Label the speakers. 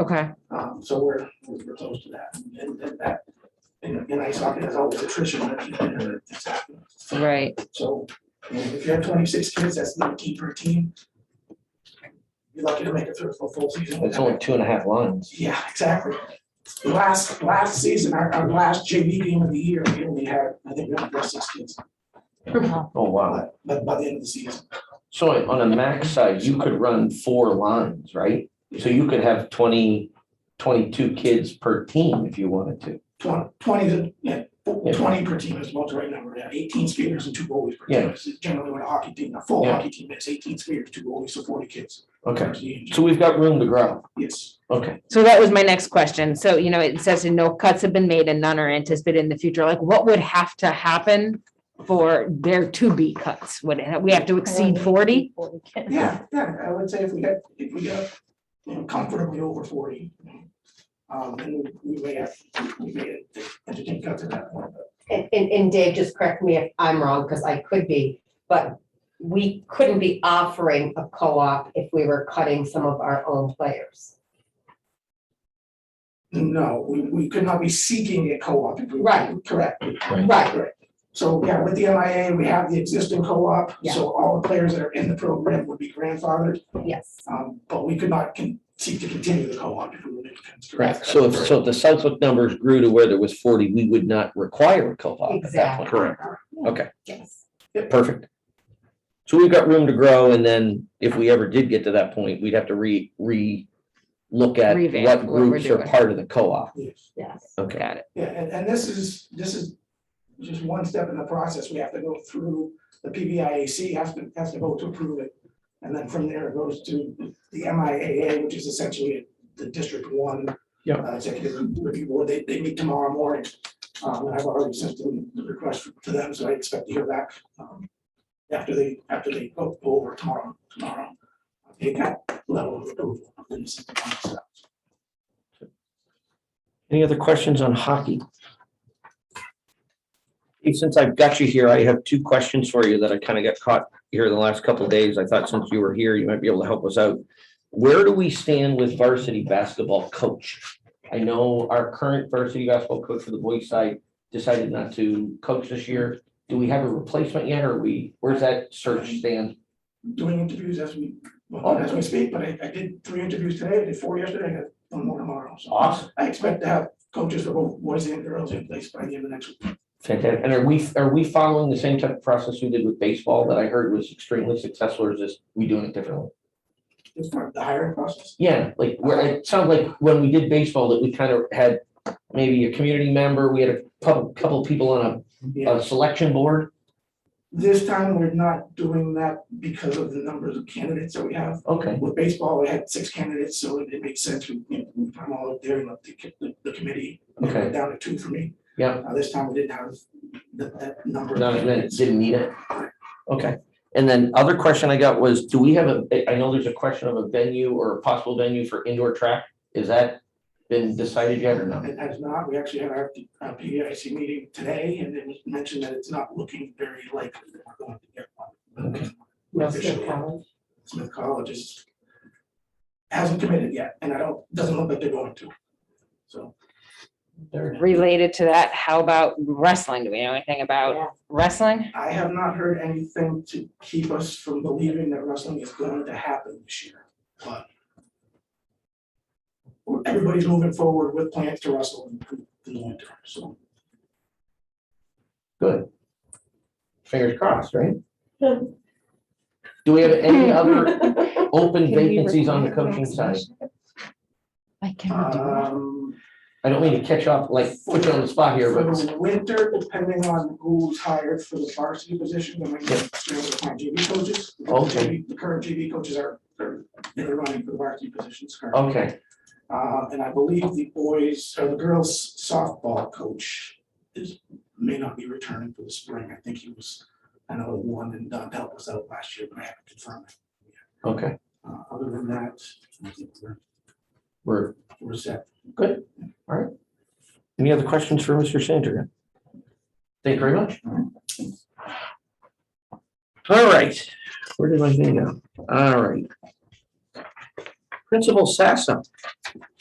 Speaker 1: Okay,
Speaker 2: Um, so we're, we're we're close to that. And and that, you know, in ice hockey, there's always attrition that you know, that's happening.
Speaker 1: right.
Speaker 2: So I mean, if you have twenty-six kids, that's not key per team. You're lucky to make it through a full season. with
Speaker 3: It's
Speaker 2: that.
Speaker 3: only two and a half lines.
Speaker 2: Yeah, exactly. Last, last season, our, our last JV game of the year, we only had, I think, we only had six kids,
Speaker 3: Oh, wow.
Speaker 2: but, but by the end of the season.
Speaker 3: So on a max side, you could run four lines, right? So you could have 20, 22 kids per team if you wanted to.
Speaker 2: Twenty, twenty, is- yeah,
Speaker 3: Yeah.
Speaker 2: twenty per team is what's the right number, yeah, eighteen speakers and two goalies per
Speaker 3: Yeah.
Speaker 2: team. It's Generally, when a hockey team, a full
Speaker 3: Yeah.
Speaker 2: hockey team, it's eighteen speakers, two goalies, so forty kids.
Speaker 3: Okay, so we've got room to grow.
Speaker 2: Yes,
Speaker 3: Okay,
Speaker 1: So that was my next question. So, you know, it says no cuts have been made and none are anticipated in the future. Like what would have to happen for there to be cuts? Would it, we have to exceed forty?
Speaker 2: yeah, yeah, I would say if we get, if we get, you know, comfortably over forty. Um, then we we may have, we may entertain cuts at that point, but
Speaker 4: And, and, and Dave, just correct me if I'm wrong, because I could be, but we couldn't be offering a co-op if we were cutting some of our own players.
Speaker 2: no, we, we could not be seeking a co-op. if we-
Speaker 4: Right.
Speaker 2: Correct.
Speaker 4: Right,
Speaker 2: So, yeah, with the MIA, we have the existing co-op,
Speaker 4: Yeah.
Speaker 2: so all the players that are in the program would be grandfathered,
Speaker 4: yes.
Speaker 2: um, but we could not con- seek to continue the co-op if we were to. consider that.
Speaker 3: so if, so if the Southwick numbers grew to where there was 40, we would not require a co-op at that point.
Speaker 4: Exactly.
Speaker 3: Correct. Okay,
Speaker 4: Yes.
Speaker 3: perfect. So we've got room to grow and then if we ever did get to that point, we'd have to re, re, look at
Speaker 1: Revamp
Speaker 3: what
Speaker 1: what we're
Speaker 3: groups are
Speaker 1: doing.
Speaker 3: part of the co-op.
Speaker 2: Yes.
Speaker 4: Yes.
Speaker 3: Okay.
Speaker 1: Got it.
Speaker 2: Yeah, and, and this is, this is just one step in the process, we have to go through, the PBIAC has to, has to vote to approve it. And then from there it goes to the MIAA, which is essentially the District One.
Speaker 3: Yeah.
Speaker 2: uh, Executive Review Board, they, they meet tomorrow morning, um, and I've already sent them the request to them, so I expect to hear back, um, after they, after they go go over tomorrow, tomorrow. They got level of approval, and this is the final step.
Speaker 3: Any other questions on hockey? Hey, Since I've got you here, I have two questions for you that I kind of got caught here the last couple of days. I thought since you were here, you might be able to help us out. Where do we stand with varsity basketball coach? I know our current varsity basketball coach for the boys side decided not to coach this year. Do we have a replacement yet or are we, where's that search stand?
Speaker 2: doing interviews as we, well,
Speaker 3: Oh.
Speaker 2: as we speak, but I, I did three interviews today, I did four yesterday, I got one more tomorrow, so.
Speaker 3: Awesome.
Speaker 2: I expect to have coaches for both boys and girls in place by the end of next week.
Speaker 3: Fantastic. And are we, are we following the same type of process we did with baseball that I heard was extremely successful or is this, we doing it differently?
Speaker 2: It's part of the hiring process.
Speaker 3: Yeah, like where it sounds like when we did baseball that we kind of had maybe a community member, we had a couple, couple people on a,
Speaker 2: Yeah,
Speaker 3: a selection board.
Speaker 2: this time we're not doing that because of the numbers of candidates that we have.
Speaker 3: Okay,
Speaker 2: With baseball, we had six candidates, so it it makes sense, we, you know, we put them all up there and let the, co- the- the committee. narrow it
Speaker 3: Okay.
Speaker 2: Down to two for me.
Speaker 3: Yeah.
Speaker 2: Uh, this time we didn't have that, that number. of
Speaker 3: not that it
Speaker 2: candidates.
Speaker 3: didn't need it. Okay, and then other question I got was, do we have a, I know there's a question of a venue or a possible venue for indoor track. Is that been decided yet or not?
Speaker 2: It has not, we actually had our our PBIC meeting today, and it was mentioned that it's not looking very likely that we're going to get one.
Speaker 4: No
Speaker 2: Officially,
Speaker 4: Smith College.
Speaker 2: Smith College is, hasn't committed yet, and I don't, doesn't look like they're going to. So,
Speaker 1: Related to that, how about wrestling? Do we know anything about
Speaker 4: Yeah.
Speaker 1: wrestling?
Speaker 2: I have not heard anything to keep us from believing that wrestling is going to happen this year, but everybody's moving forward with plans to wrestle in in the winter, so.
Speaker 3: Good. Fingers crossed, right? Do we have any other open vacancies on the coaching side?
Speaker 2: Um,
Speaker 3: I don't mean to catch up, like, put you on the spot here,
Speaker 2: For
Speaker 3: but
Speaker 2: the winter, depending on who's hired for the varsity position, they might just be able to find JV coaches. The
Speaker 3: Okay.
Speaker 2: JV The current JV coaches are, they're, they're running for the varsity positions currently.
Speaker 3: okay,
Speaker 2: Uh, and I believe the boys, or the girls softball coach is, may not be returning for the spring. I think he was, I know one and done, helped us out last year, but I haven't confirmed. it.
Speaker 3: okay,
Speaker 2: Uh, other than that, I think we're,
Speaker 3: we're,
Speaker 2: we're set.
Speaker 3: any other questions for Mr. Sandringham? Thank you very much. All right, where did my thing go? All right. Principal Sassa,